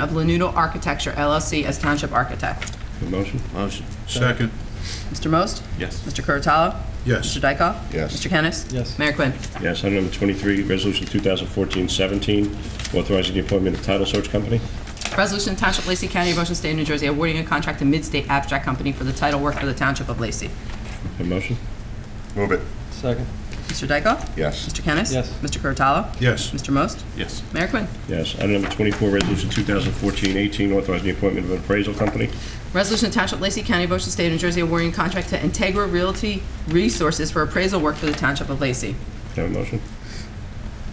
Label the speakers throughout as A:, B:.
A: of Lanudo Architecture LLC as Township Architect.
B: A motion?
C: Motion.
D: Second.
A: Mr. Most?
C: Yes.
A: Mr. Curatolo?
D: Yes.
A: Mr. Dykoff?
B: Yes.
A: Mr. Kennis?
E: Yes.
A: Mayor Quinn.
B: Yes, item number 23, resolution 2014-17, authorizing the appointment of title search company.
A: Resolution Township Lacey County, Ocean State, New Jersey, awarding a contract to Midstate Abstract Company for the title work for the Township of Lacey.
B: A motion?
C: Move it.
E: Second.
A: Mr. Dykoff?
C: Yes.
A: Mr. Kennis?
E: Yes.
A: Mr. Curatolo?
D: Yes.
A: Mr. Most?
C: Yes.
A: Mayor Quinn.
B: Yes. Item number 24, resolution 2014-18, authorizing the appointment of an appraisal company.
A: Resolution to Township Lacey County, Ocean State, New Jersey, awarding a contract to Integra Realty Resources for appraisal work for the Township of Lacey.
B: Have a motion?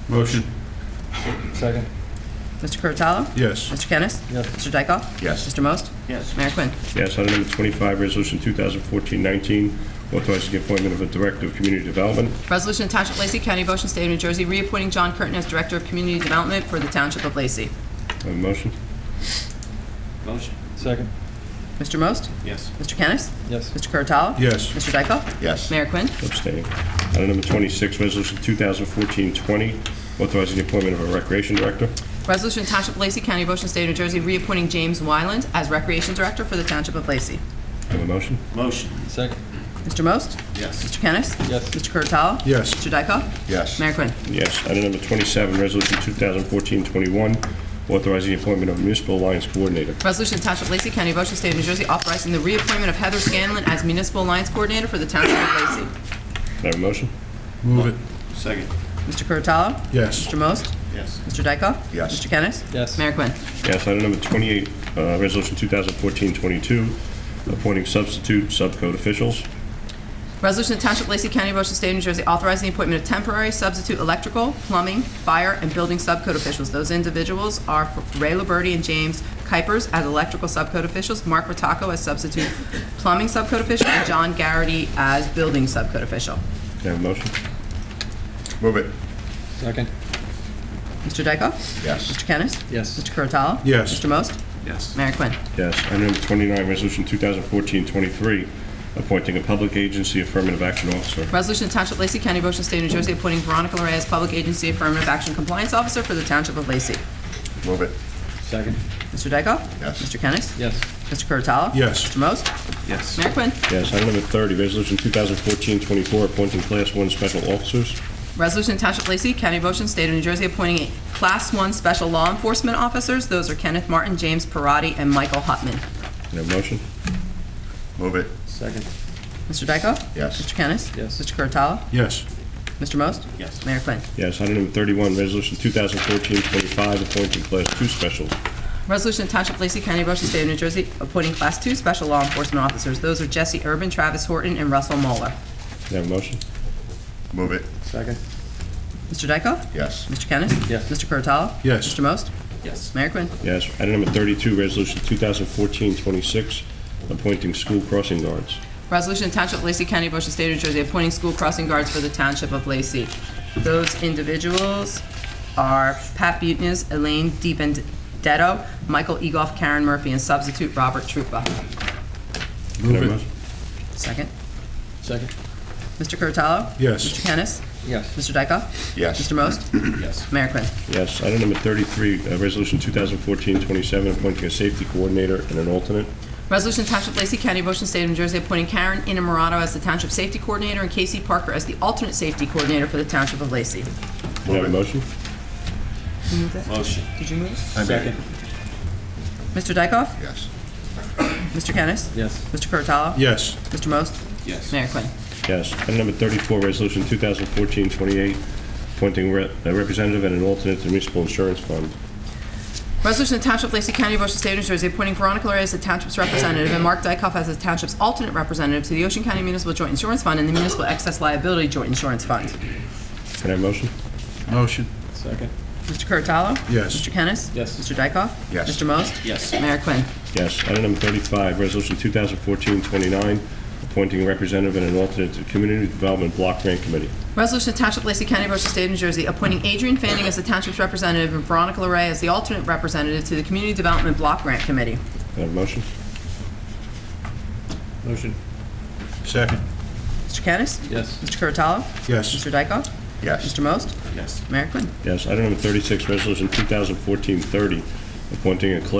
D: Motion.
E: Second.
A: Mr. Curatolo?
D: Yes.
A: Mr. Kennis?
E: Yes.
A: Mr. Dykoff?
C: Yes.
A: Mr. Most?
C: Yes.
A: Mayor Quinn.
B: Yes. Item number 25, resolution 2014-19, authorizing the appointment of a director of community development.
A: Resolution to Township Lacey County, Ocean State, New Jersey, reappointing John Curtin as Director of Community Development for the Township of Lacey.
B: Have a motion?
C: Motion.
E: Second.
A: Mr. Most?
C: Yes.
A: Mr. Kennis?
E: Yes.
A: Mr. Curatolo?
D: Yes.
A: Mr. Dykoff?
C: Yes.
A: Mayor Quinn.
B: Abstain. Item number 26, resolution 2014-20, authorizing the appointment of a recreation director.
A: Resolution to Township Lacey County, Ocean State, New Jersey, reappointing James Wyland as Recreation Director for the Township of Lacey.
B: Have a motion?
C: Motion.
E: Second.
A: Mr. Most?
C: Yes.
A: Mr. Kennis?
E: Yes.
A: Mr. Curatolo?
D: Yes.
A: Mr. Dykoff?
C: Yes.
A: Mayor Quinn.
B: Yes. Item number 27, resolution 2014-21, authorizing the appointment of municipal alliance coordinator.
A: Resolution to Township Lacey County, Ocean State, New Jersey, authorizing the reappointment of Heather Scanlon as Municipal Alliance Coordinator for the Township of Lacey.
B: Can I have a motion?
D: Move it.
C: Second.
A: Mr. Curatolo?
D: Yes.
A: Mr. Most?
C: Yes.
A: Mr. Dykoff?
C: Yes.
A: Mr. Kennis?
E: Yes.
A: Mayor Quinn.
B: Yes. Item number 28, uh, resolution 2014-22, appointing substitute subcode officials.
A: Resolution to Township Lacey County, Ocean State, New Jersey, authorizing the appointment of temporary substitute electrical, plumbing, fire, and building subcode officials. Those individuals are Ray Liberty and James Kuipers as electrical subcode officials, Mark Rotaco as substitute plumbing subcode official, and John Garrity as building subcode official.
B: Can I have a motion?
C: Move it.
E: Second.
A: Mr. Dykoff?
C: Yes.
A: Mr. Kennis?
E: Yes.
A: Mr. Curatolo?
D: Yes.
A: Mr. Most?
C: Yes.
A: Mayor Quinn.
B: Yes. Item number 29, resolution 2014-23, appointing a public agency affirmative action officer.
A: Resolution to Township Lacey County, Ocean State, New Jersey, appointing Veronica Larray as Public Agency Affirmative Action Compliance Officer for the Township of Lacey.
C: Move it.
E: Second.
A: Mr. Dykoff?
C: Yes.
A: Mr. Kennis?
E: Yes.
A: Mr. Curatolo?
D: Yes.
A: Mr. Most?
C: Yes.
A: Mayor Quinn.
B: Yes. Item number 30, resolution 2014-24, appointing class one special officers.
A: Resolution to Township of Lacey, County of Ocean, State of New Jersey, appointing a Class 1 Special Law Enforcement Officers. Those are Kenneth Martin, James Parati, and Michael Hutman.
B: Can I have a motion?
C: Move it.
E: Second.
A: Mr. Dykoff?
C: Yes.
A: Mr. Kennis?
E: Yes.
A: Mr. Curatolo?
D: Yes.
A: Mr. Most?
C: Yes.
A: Mayor Quinn.
B: Yes, item number 31, resolution 2014-25, appointing class two specials.
A: Resolution to Township of Lacey, County of Ocean, State of New Jersey, appointing Class 2 Special Law Enforcement Officers. Those are Jesse Urban, Travis Horton, and Russell Moeller.
B: Can I have a motion?
C: Move it.
E: Second.
A: Mr. Dykoff?
C: Yes.
A: Mr. Kennis?
E: Yes.
A: Mr. Curatolo?
D: Yes.
A: Mr. Most?
C: Yes.
A: Mayor Quinn.
B: Yes, item number 32, resolution 2014-26, appointing school crossing guards.
A: Resolution to Township of Lacey County, Ocean State, New Jersey, appointing school crossing guards for the Township of Lacey. Those individuals are Pat Butkus, Elaine DiBenedetto, Michael Egoff, Karen Murphy, and substitute Robert Trupa.
B: Can I have a
D: Move it.
B: motion?
A: Second.
E: Second.
A: Mr. Curatolo? Mr.
D: Yes.
A: Kennis?
E: Yes.
A: Mr. Dykoff?
C: Yes.
A: Mr. Most?
C: Yes.
A: Mayor Quinn.
B: Yes, item number 33, uh, resolution 2014-27, appointing a safety coordinator and an alternate.
A: Resolution to Township of Lacey County, Ocean State, New Jersey, appointing Karen Inamorado as the Township Safety Coordinator and Casey Parker as the alternate safety coordinator for the Township of Lacey.
B: Can I have a motion?
C: Motion.
A: Did you move?
E: Second.
A: Mr. Dykoff?
C: Yes.
A: Mr. Kennis?
E: Yes.
A: Mr. Curatolo?
D: Yes.
A: Mr. Most?
C: Yes.
A: Mayor Quinn.
B: Yes, item number 34, resolution 2014-28, appointing re- a representative and an alternate to the municipal insurance fund.
A: Resolution of Township of Lacey County, Ocean State, New Jersey, appointing Veronica Larry as the Township's representative and Mark Dykoff as the Township's alternate representative to the Ocean County Municipal Joint Insurance Fund and the Municipal Excess Liability Joint Insurance Fund.
B: Can I have a motion?
D: Motion.
E: Second.
A: Mr. Curatolo?
D: Yes.
A: Mr. Kennis?
E: Yes.
A: Mr. Dykoff?
C: Yes.
A: Mr. Most?
C: Yes.
A: Mayor Quinn.
B: Yes. Item number 35, Resolution 2014-29, appointing a representative and an alternate to Community Development Block Grant Committee.
A: Resolution of Township of Lacey County, Ocean State, New Jersey, appointing Adrian Fanning as the Township's representative and Veronica Larry as the alternate representative to the Community Development Block Grant Committee.
B: Can I have a motion?
E: Motion.
D: Second.
A: Mr. Kennis?
E: Yes.
A: Mr. Curatolo?
D: Yes.
A: Mr. Dykoff?
C: Yes.
A: Mr. Most?
C: Yes.
A: Mayor Quinn.
B: Yes. Item number 36, Resolution 2014-30, appointing a cla-